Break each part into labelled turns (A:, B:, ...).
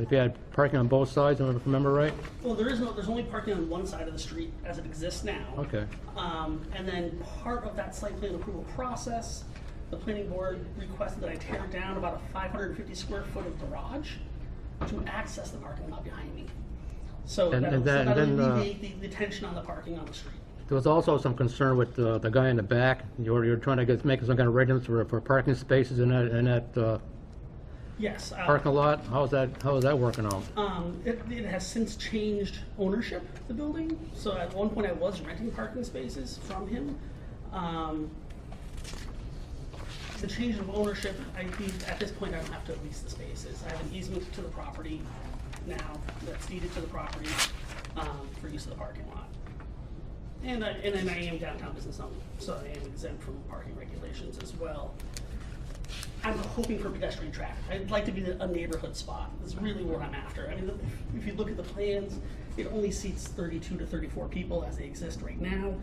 A: If you had parking on both sides, if I remember right?
B: Well, there is no, there's only parking on one side of the street as it exists now.
A: Okay.
B: Um, and then part of that site plan approval process, the planning board requested that I tear down about a five hundred and fifty square foot of garage to access the parking lot behind me. So
A: And-
B: that'll,
A: and
B: so
A: then-
B: that'll
A: then, uh,
B: alleviate the, the tension on the parking on the street.
A: There was also some concern with uh, the guy in the back. You were, you were trying to get, make some kind of arrangements for, for parking spaces in that, in that uh,
B: Yes. uh,
A: parking lot. How's that, how is that working out?
B: Um, it, it has since changed ownership, the building, so at one point I was renting parking spaces from him. Um, the change of ownership, I think, at this point, I don't have to lease the spaces, I have an easement to the property now, that's deeded to the property, um, for use of the parking lot. And I, and then I am downtown business zone, so I am exempt from parking regulations as well. I'm hoping for pedestrian traffic. I'd like to be a neighborhood spot. That's really what I'm after. I mean, the- if you look at the plans, it only seats 32 to 34 people as they exist right now.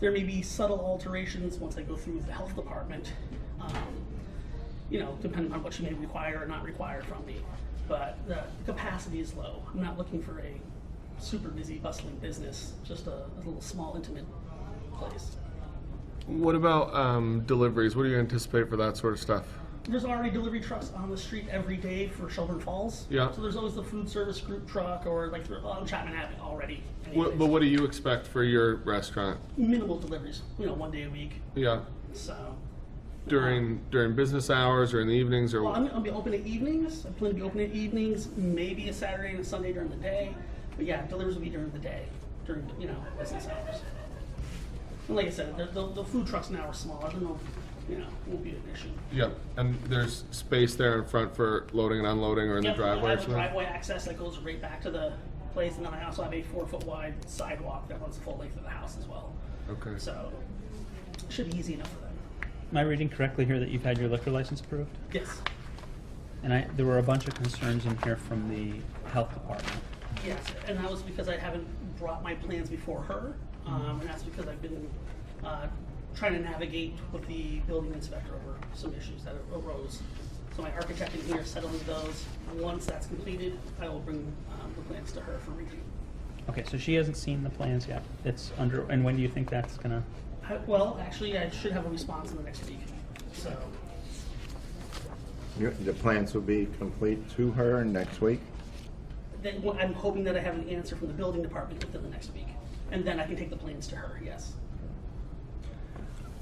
B: There may be subtle alterations once I go through with the health department, um, you know, depending on what you may require or not require from me. But the capacity is low. I'm not looking for a super busy bustling business, just a, a little small intimate place.
C: What about um, deliveries? What do you anticipate for that sort of stuff?
B: there's already delivery trucks on the street every day for Shelburne Falls.
C: Yeah.
B: So there's always the food service group truck or like they're on Chapman Avenue already.
C: What,
B: anyways.
C: but what do you expect for your restaurant?
B: Minimal deliveries, you know, one day a week.
C: Yeah,
B: So
C: during during business hours or in the evenings or
B: well, I'm, I'll be open at evenings. I plan to be open at evenings, maybe a Saturday and a Sunday during the day. But yeah, deliveries will be during the day, during you know business hours. And like I said, the, the, the food trucks now are smaller. They're no, you know, won't be an issue.
C: yeah. And there's space there in front for loading and unloading or in
B: Yep,
C: the driveway.
B: I
C: or
B: have a
C: something?
B: driveway access that goes right back to the place, and then I also have a four foot wide sidewalk that runs the full length of the house as well.
C: Okay.
B: So, should be easy enough for them.
D: Am I reading correctly here that you've had your liquor license approved?
B: Yes,
D: And I, there were a bunch of concerns in here from the health department.
B: yes, and that was because I haven't brought my plans before her,
C: Mm-hmm.
B: um, and that's because I've been, uh, trying to navigate with the building inspector over some issues that arose. So my architect in here settling those, once that's completed, I will bring, um, the plans to her for review.
D: Okay, so she hasn't seen the plans yet. It's under, and when do you think that's gonna,
B: I- Well, actually, I should have a response in the next week, so,
E: Your- The plans will be complete to her next week?
B: then, well, I'm hoping that I have an answer from the building department within the next week, and then I can take the plans to her, yes.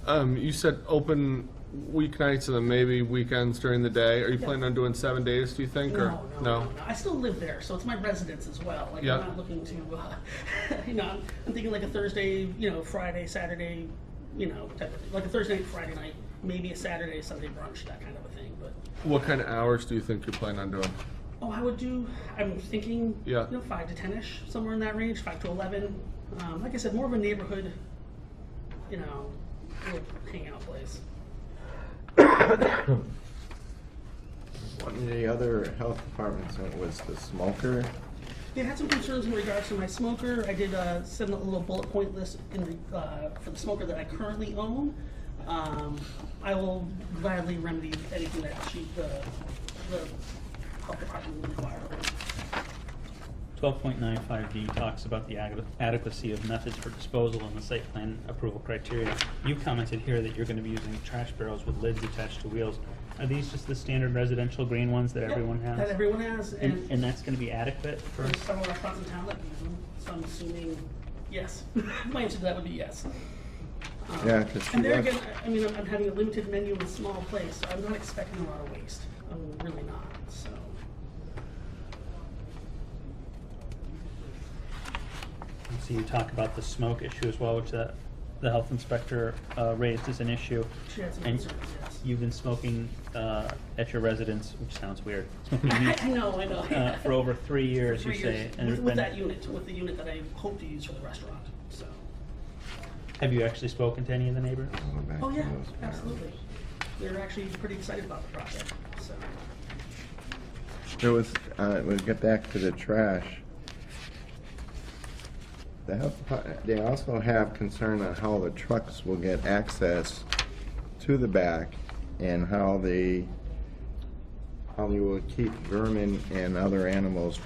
C: Um, you said open weeknights and then maybe weekends during the day. Are you planning on doing seven days? Do you think or
B: No, no, no, no, I still live there, so it's my residence as well, like, I'm
C: Yeah.
B: not looking to, uh, you know, I'm- I'm thinking like a Thursday, you know, Friday, Saturday, you know, type of thing. like a Thursday, Friday night, maybe a Saturday, Sunday brunch, that kind of a thing, but,
C: What kind of hours do you think you're planning on doing?
B: oh, I would do, I'm thinking, you
C: Yeah.
B: know, five to ten-ish, somewhere in that range, five to eleven, um, like I said, more of a neighborhood, you know, little hangout place.
E: One of the other health departments that was the smoker.
B: They had some concerns in regards to my smoker. I did uh, send a little bullet point list in, re- uh, for the smoker that I currently own. Um, I will gladly remedy anything that she, the, the health department will require.
D: twelve point nine five D talks about the ade- adequacy of methods for disposal and the site plan approval criteria. You commented here that you're gonna be using trash barrels with lids attached to wheels. Are these just the standard residential green ones that everyone has?
B: That everyone has,
D: And,
B: and
D: and that's gonna be adequate for,
B: there's several restaurants in town that use them, so I'm assuming, yes. My answer to that would be yes. Um,
E: Yeah, 'cause she
B: And there
E: left.
B: again, I I mean, I'm I'm having a limited menu in a small place, so I'm not expecting a lot of waste. I'm really not, so.
D: so you talk about the smoke issue as well, which the, the health inspector, uh, raised as an issue.
B: She had some
D: And-
B: concerns, yes.
D: You've been smoking uh, at your residence, which sounds weird, smoking
B: I
D: weed
B: I know, I know.
D: uh, for over three years, you
B: Three
D: say.
B: years
D: and
B: with,
D: there's
B: with
D: been-
B: that unit, with the unit that I hope to use for the restaurant. So.
D: Have you actually spoken to any of the neighbors?
E: Go back
B: Oh
E: to
B: yeah,
E: those barrels.
B: absolutely. They're actually pretty excited about the project. So.
E: There was, uh, we'll get back to the trash. The health department, they also have concern on how the trucks will get access to the back and how the how you will keep vermin and other animals